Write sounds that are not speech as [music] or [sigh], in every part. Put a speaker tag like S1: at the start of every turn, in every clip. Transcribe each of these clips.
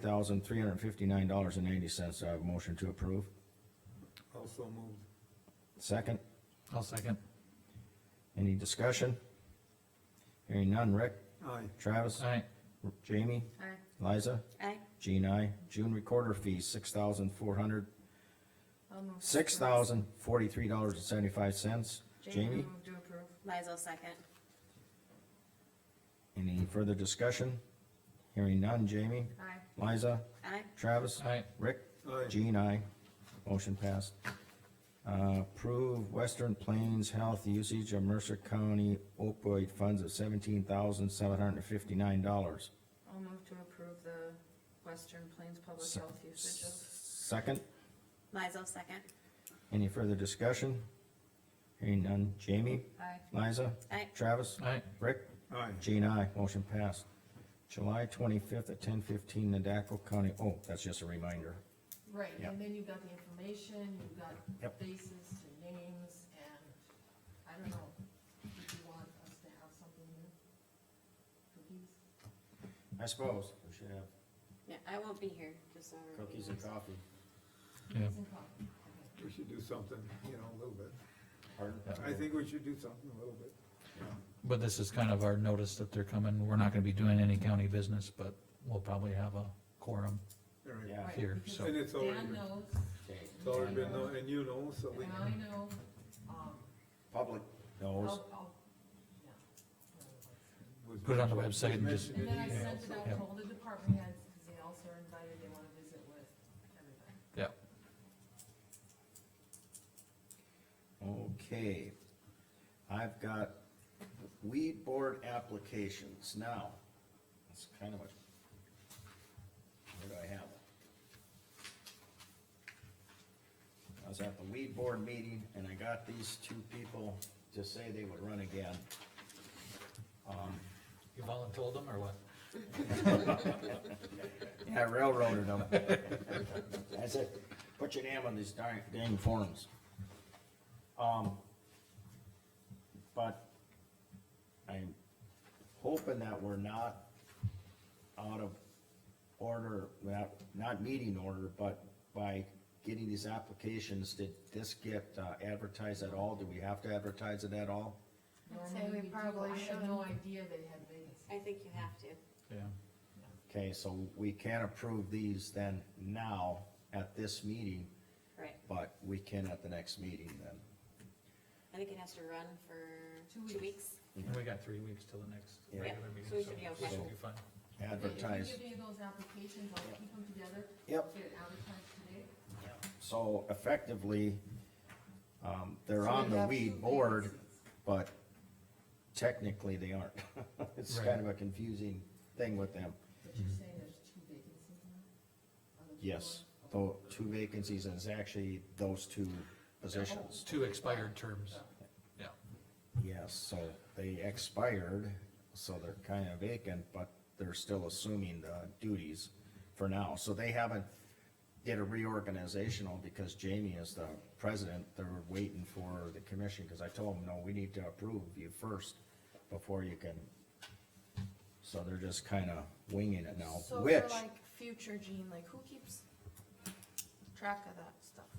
S1: thousand three hundred fifty-nine dollars and ninety cents. I have a motion to approve.
S2: Also moved.
S1: Second,
S3: I'll second.
S1: any discussion? Hearing none. Rick?
S2: Aye.
S1: Travis?
S3: Aye,
S1: Jamie?
S4: Aye.
S1: Liza?
S4: Aye.
S1: Jean, I. June recorder fee, six thousand four hundred,
S4: I'll move. to
S1: six
S4: approve.
S1: thousand forty-three dollars and seventy-five cents. Jamie?
S4: I'll move to approve. Liza, second.
S1: Any further discussion? Hearing none. Jamie?
S4: Aye.
S1: Liza?
S4: Aye.
S1: Travis?
S3: aye,
S1: Rick?
S2: Aye.
S1: Jean, I. Motion passed. Uh, approve Western Plains Health usage of Mercer County opioid funds of seventeen thousand seven hundred and fifty-nine dollars.
S4: I'll move to approve the Western Plains Public
S1: Se-
S4: Health usage of.
S1: Second,
S4: Liza, second.
S1: any further discussion? Hearing none. Jamie?
S4: Aye.
S1: Liza?
S4: Aye.
S1: Travis?
S3: aye,
S1: Rick?
S2: Aye.
S1: Jean, I. Motion passed. July twenty-fifth at ten fifteen, Nadaco County, oh, that's just a reminder.
S5: Right,
S1: Yeah.
S5: and then you've got the information, you've got
S1: Yep.
S5: faces to names, and I don't know, if you want us to have something new? Cookies?
S1: I suppose we should have
S4: Yeah, I won't be here, just so. everybody
S1: cookies and
S4: knows.
S1: coffee.
S3: yeah,
S5: Some coffee. Okay.
S2: We should do something, you know, a little bit.
S1: Pardon?
S2: I think we should do something a little bit.
S3: but this is kind of our notice that they're coming, we're not gonna be doing any county business, but we'll probably have a quorum
S2: All right.
S1: Yeah.
S5: Right,
S3: Here,
S4: [laughs]
S5: because
S3: so-
S2: And it's already,
S5: Dan knows,
S1: Okay.
S2: it's already been, known, and you know, so we,
S5: and I know, um,
S1: Public knows.
S5: I'll, I'll, yeah.
S2: was
S3: Put it on the
S2: mentioned-
S3: website and just-
S2: mentioned
S5: And then
S2: in
S5: I
S2: email,
S5: sent it out
S2: so-
S5: to all the department heads, because they also are invited, they wanna visit with everybody.
S3: yeah.
S1: Okay. I've got weed board applications now. It's kind of a, where do I have it? I was at the weed board meeting and I got these two people to say they would run again.
S3: You voluntold them or what?
S1: I railroaded [laughs] them. I said, put your name on these darn, dang forms. Um, but I'm hoping that we're not out of order, not, not meeting order, but by getting these applications, did this get uh, advertised at all? Do we have to advertise it at all?
S4: I'd say
S5: Normally
S4: we
S5: do.
S4: probably
S5: I had no
S4: shouldn't.
S5: idea they had vacancies.
S4: I think you have to.
S3: Yeah,
S1: Okay, so we can approve these then now at this meeting,
S4: Right.
S1: but we can at the next meeting then.
S4: I think it has to run for
S5: Two
S4: two
S5: weeks.
S4: weeks.
S3: and we got three weeks till the next
S1: Yeah.
S3: regular meeting, so
S4: so we should be okay.
S3: we should be fine.
S5: If
S1: Advertise,
S5: you give me those applications, I'll keep them together.
S1: Yep.
S5: Get it advertised today.
S1: so effectively, um, they're
S5: So
S1: on
S5: we
S1: the
S5: have
S1: weed
S5: two
S1: board,
S5: vacancies.
S1: but technically they aren't. [laughs] It's
S3: Right.
S1: kind of a confusing thing with them.
S5: But you're saying there's two vacancies now? on the two
S1: Yes,
S5: boards?
S1: though, two vacancies and it's actually those two
S3: It's
S1: positions.
S3: two expired terms, yeah,
S1: Yes, so they expired, so they're kind of vacant, but they're still assuming the duties for now. So they haven't did a reorganizational because Jamie is the president. They're waiting for the commission, because I told them, no, we need to approve you first before you can. So they're just kind of winging it now,
S6: So
S1: which,
S6: for like future Gene, like who keeps track of that stuff?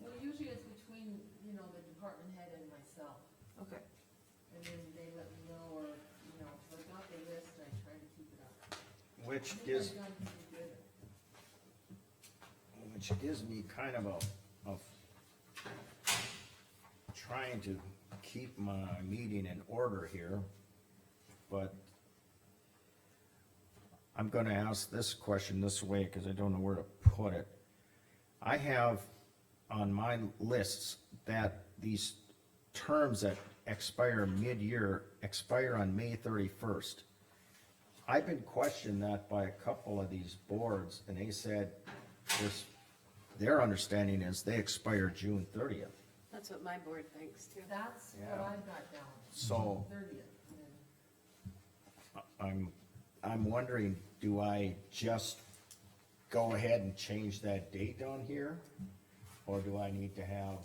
S5: Well, usually it's between, you know, the department head and myself,
S6: Okay,
S5: and then they let me know, or, you know, if I got the list, I try to keep it up.
S1: which
S5: I think
S1: is.
S5: I've done pretty good.
S1: which gives me kind of a, of trying to keep my meeting in order here, but I'm gonna ask this question this way, cause I don't know where to put it. I have on my lists that these terms that expire mid-year expire on May thirty-first. I've been questioned that by a couple of these boards, and they said, this, their understanding is they expire June thirtieth.
S4: That's what my board thinks too.
S5: That's what
S1: Yeah.
S5: I've got down,
S1: So
S5: thirtieth, and then
S1: I'm, I'm wondering, do I just go ahead and change that date on here? Or do I need to have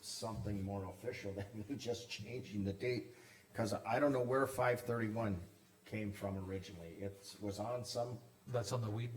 S1: something more official [laughs] than just changing the date? Cause I don't know where five thirty-one came from originally. It was on some
S3: that's on the weed